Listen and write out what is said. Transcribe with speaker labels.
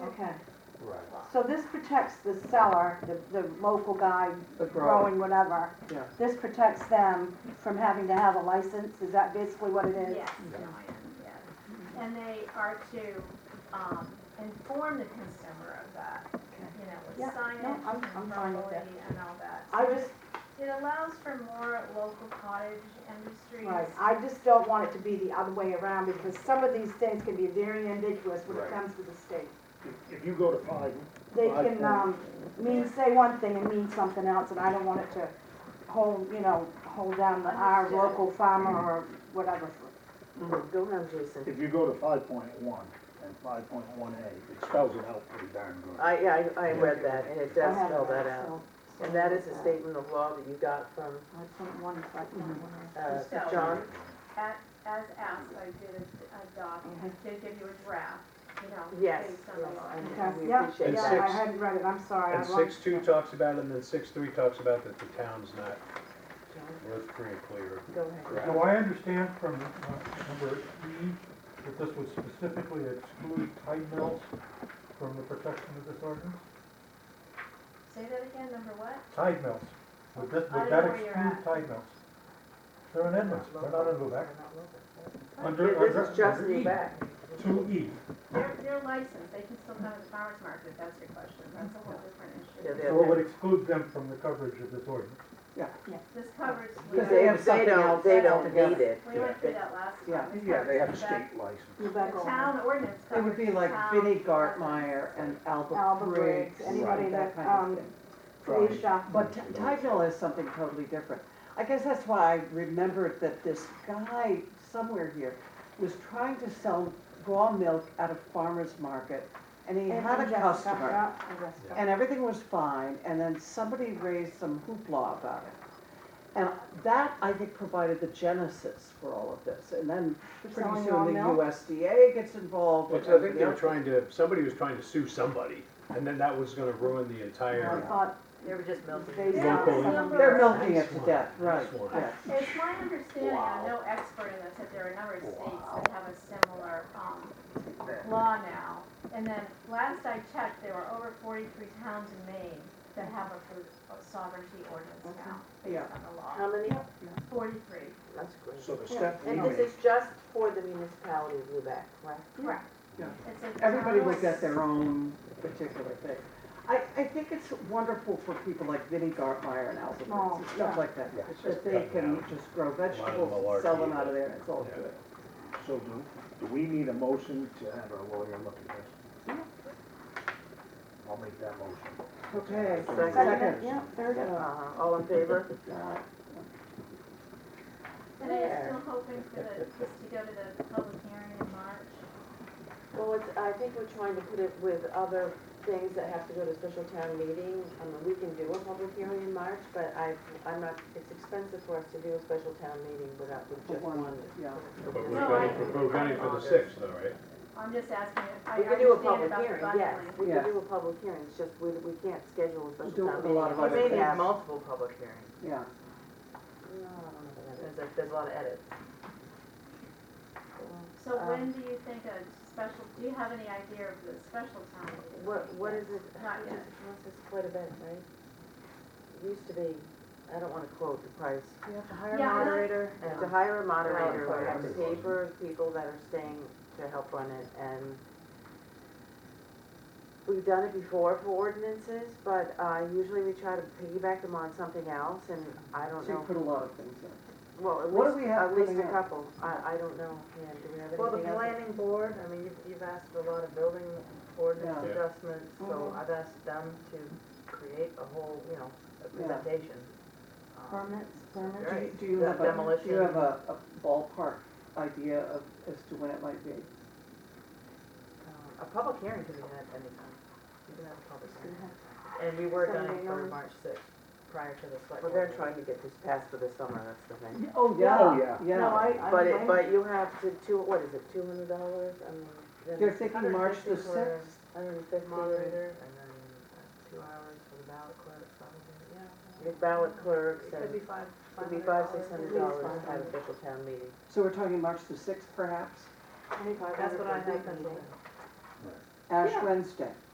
Speaker 1: okay.
Speaker 2: Right.
Speaker 1: So this protects the seller, the, the local guy
Speaker 3: the
Speaker 1: growing whatever.
Speaker 3: Yeah.
Speaker 1: This protects them from having to have a license, is that basically what it is?
Speaker 4: Yes, Joanne, yes. And they are to, um, inform the consumer of that, you know, with
Speaker 1: Yeah, no,
Speaker 4: signage
Speaker 1: I'm-
Speaker 4: and
Speaker 1: I'm fine with
Speaker 4: properly and all that.
Speaker 1: I
Speaker 4: So
Speaker 1: just,
Speaker 4: It allows for more local cottage industries.
Speaker 1: right, I just don't want it to be the other way around, because some of these things can be very ambiguous when it
Speaker 2: Right.
Speaker 1: comes to the state.
Speaker 5: If- If you go to five,
Speaker 1: They
Speaker 5: Well, I
Speaker 1: can,
Speaker 5: think-
Speaker 1: um, mean, say one thing and mean something else, and I don't want it to hold, you know, hold down the, our
Speaker 4: Understood.
Speaker 1: local farmer or whatever.
Speaker 3: Go ahead, Jason.
Speaker 5: if you go to five point one and five point one A, it spells it out pretty darn good.
Speaker 3: I, yeah, I, I read that, and it does
Speaker 1: I had
Speaker 3: spell that
Speaker 1: that,
Speaker 3: out.
Speaker 1: so- so
Speaker 3: And that is a
Speaker 1: that's that.
Speaker 3: statement of law that you got from,
Speaker 1: I think one is like that one.
Speaker 3: uh,
Speaker 4: So-
Speaker 3: John.
Speaker 4: At, as asked, I did a doc, I
Speaker 1: Mhm.
Speaker 4: did give you a draft, you know,
Speaker 3: Yes.
Speaker 4: based on the law.
Speaker 3: yes,
Speaker 1: Okay,
Speaker 3: We
Speaker 1: yeah,
Speaker 3: appreciate
Speaker 2: And
Speaker 1: yeah,
Speaker 3: that.
Speaker 1: I
Speaker 2: six-
Speaker 1: hadn't read it, I'm sorry.
Speaker 2: And
Speaker 1: I lost-
Speaker 2: six two talks about it, and then six three talks about that the town's not
Speaker 3: John,
Speaker 2: worth free and clear. of
Speaker 3: Go ahead.
Speaker 2: grass.
Speaker 6: Now, I understand from uh, number E that this would specifically exclude tide mills from the protection of this ordinance?
Speaker 4: Say that again, number what?
Speaker 6: Tide mills, would this,
Speaker 4: I don't
Speaker 6: would that
Speaker 4: know where you're
Speaker 6: exclude
Speaker 4: at.
Speaker 6: tide mills? They're in Edmonds, they're not in Lubec. Under-
Speaker 3: This
Speaker 6: under-
Speaker 3: is just
Speaker 6: under E,
Speaker 3: new back.
Speaker 6: Two E,
Speaker 4: They're, they're licensed, they can still come to the farmer's market, if that's your question, that's a whole different
Speaker 3: Yeah,
Speaker 4: issue.
Speaker 3: they-
Speaker 6: so it would exclude them from the coverage of this ordinance.
Speaker 4: This covers.
Speaker 3: Because they, they don't, they don't need it.
Speaker 4: We went through that last
Speaker 7: Yeah.
Speaker 4: time. This
Speaker 5: Yeah, they have a
Speaker 4: covers the
Speaker 5: state license.
Speaker 1: You
Speaker 4: back-
Speaker 1: back
Speaker 4: The
Speaker 1: over.
Speaker 4: town ordinance
Speaker 7: It
Speaker 4: covers.
Speaker 7: would be
Speaker 4: the
Speaker 7: like
Speaker 4: town
Speaker 7: Vinnie
Speaker 4: residents.
Speaker 7: Gartmeyer and Alba
Speaker 1: Alba
Speaker 7: Briggs.
Speaker 1: Briggs, anybody that,
Speaker 7: kind of
Speaker 1: um,
Speaker 7: thing.
Speaker 1: Felicia,
Speaker 7: But Ti- Tideville is something totally different. I guess that's why I remembered that this guy somewhere here was trying to sell raw milk at a farmer's market and he
Speaker 1: and
Speaker 7: had a
Speaker 1: Jessica,
Speaker 7: customer.
Speaker 1: yeah, and Jessica.
Speaker 7: And everything was fine and then somebody raised some hoopla about it. And that, I think, provided the genesis for all of this. And then
Speaker 1: We're
Speaker 7: pretty
Speaker 1: selling raw
Speaker 7: soon the
Speaker 1: milk.
Speaker 7: USDA gets involved.
Speaker 2: Well,
Speaker 7: and
Speaker 2: I think
Speaker 7: everything
Speaker 2: they were
Speaker 7: else.
Speaker 2: trying to, somebody was trying to sue somebody, and then that was gonna ruin the
Speaker 1: Well, I
Speaker 2: entire.
Speaker 1: thought
Speaker 3: They were just melting.
Speaker 1: they
Speaker 4: Yeah,
Speaker 1: sold
Speaker 2: Local.
Speaker 1: some of
Speaker 7: They're
Speaker 1: them.
Speaker 7: milking it to
Speaker 2: Nice
Speaker 7: death,
Speaker 2: one,
Speaker 7: right,
Speaker 2: nice one.
Speaker 7: yes.
Speaker 4: It's my understanding, I'm no expert in this, that there are a number of states that have a similar, um, law now. And then, last I checked, there were over forty-three towns in Maine that have a food sovereignty ordinance now,
Speaker 7: Yeah. Um,
Speaker 4: based on the law.
Speaker 3: How many?
Speaker 4: Forty-three.
Speaker 3: That's great.
Speaker 2: So the step
Speaker 3: And
Speaker 2: one,
Speaker 3: this is just for the municipality of Lubec, right?
Speaker 4: Correct.
Speaker 7: Yeah.
Speaker 4: It's a town.
Speaker 7: Everybody would get their own particular thing. I, I think it's wonderful for people like Vinnie Gartmeyer and Alvin Briggs and stuff like that,
Speaker 2: Yeah, it's just
Speaker 7: that they
Speaker 2: cutting
Speaker 7: can
Speaker 2: out
Speaker 7: just grow
Speaker 2: of
Speaker 7: vegetables, sell them
Speaker 2: malarkey,
Speaker 7: out of
Speaker 2: but-
Speaker 7: there, and it's all
Speaker 2: yeah.
Speaker 7: good.
Speaker 5: So do, do we need a motion to have our lawyer look at this? I'll make that motion.
Speaker 7: Okay,
Speaker 1: Second,
Speaker 7: second.
Speaker 1: yeah, third
Speaker 7: Uh,
Speaker 3: Uh-huh.
Speaker 7: All in favor?
Speaker 4: And I'm still hoping for the, just to go to the public hearing in March.
Speaker 3: Well, it's, I think we're trying to put it with other things that have to go to special town meeting. I mean, we can do a public hearing in March, but I, I'm not, it's expensive for us to do a special town meeting without, with just
Speaker 7: One,
Speaker 3: one.
Speaker 7: yeah.
Speaker 2: but we're
Speaker 4: No,
Speaker 2: going
Speaker 4: I-
Speaker 2: for, we're going for the sixth though, right?
Speaker 4: I'm just asking if I
Speaker 3: We can do a
Speaker 4: understand
Speaker 3: public
Speaker 4: about the
Speaker 3: hearing, yes,
Speaker 4: bundling.
Speaker 3: we
Speaker 7: Yeah.
Speaker 3: can do a public hearing, it's just we, we can't schedule a
Speaker 7: Do
Speaker 3: special town
Speaker 7: it with a
Speaker 3: meeting.
Speaker 7: lot of other
Speaker 3: Maybe
Speaker 7: things.
Speaker 3: multiple public hearings.
Speaker 7: Yeah,
Speaker 3: No, I don't know about that. There's, a- there's a lot of edits.
Speaker 4: So
Speaker 3: Um,
Speaker 4: when do you think a special, do you have any idea of the special time?
Speaker 3: What, what is it?
Speaker 4: Not yet.
Speaker 3: This is quite a bit, right? It used to be, I don't wanna quote the price.
Speaker 7: You have to
Speaker 4: a Yeah, I like- moderator.
Speaker 3: And to hire a moderator, we have to
Speaker 2: Right.
Speaker 3: pay for people that are staying to help run it, and we've done it before for ordinances, but, uh, usually we try to piggyback them on something else, and I
Speaker 7: So
Speaker 3: don't
Speaker 7: you
Speaker 3: know.
Speaker 7: put a lot of things in.
Speaker 3: Well, at
Speaker 7: What do
Speaker 3: least,
Speaker 7: we have
Speaker 3: at least a
Speaker 7: coming up?
Speaker 3: couple, I, I don't know, Pam, do we have anything else?
Speaker 8: Well, the planning board, I mean, you've, you've asked for a lot of building ordinance
Speaker 2: Yeah. Yeah.
Speaker 8: adjustments, so
Speaker 3: Mm-hmm.
Speaker 1: Mhm.
Speaker 8: I've asked them to create a whole, you know, a
Speaker 7: Yeah.
Speaker 8: presentation. um,
Speaker 1: Permits,
Speaker 7: Do
Speaker 1: permits.
Speaker 7: you- Do you have a, do you
Speaker 8: Demolition.
Speaker 7: have a a ballpark idea of, as to when it might be?
Speaker 8: um, A public hearing can be had anytime, you can have a public hearing. And we were
Speaker 1: Somebody
Speaker 8: done for
Speaker 1: knows.
Speaker 8: March sixth, prior to the select.
Speaker 3: Well,
Speaker 8: board
Speaker 3: they're
Speaker 8: meeting.
Speaker 3: trying to get this passed for the summer, that's the thing.
Speaker 7: Oh,
Speaker 5: Oh,
Speaker 7: yeah,
Speaker 5: yeah.
Speaker 1: No,
Speaker 7: yeah.
Speaker 1: I, I.
Speaker 3: But it,
Speaker 1: I-
Speaker 3: but you have to, two, what is it, two hundred dollars, I mean, then.
Speaker 7: They're thinking March
Speaker 8: 150
Speaker 7: the
Speaker 8: for
Speaker 7: sixth?
Speaker 3: Hundred and fifty.
Speaker 8: Moderator, and then uh, two hours for the ballot clerk, probably, yeah.
Speaker 3: Your ballot clerks
Speaker 8: It
Speaker 3: and,
Speaker 8: could be five,
Speaker 3: could be five, six
Speaker 8: $500.
Speaker 3: hundred dollars to have official town meeting.
Speaker 7: So we're talking March the sixth perhaps?
Speaker 3: Twenty-five
Speaker 8: That's what I have penciled in.
Speaker 7: Ash
Speaker 1: Yeah.
Speaker 7: Wednesday.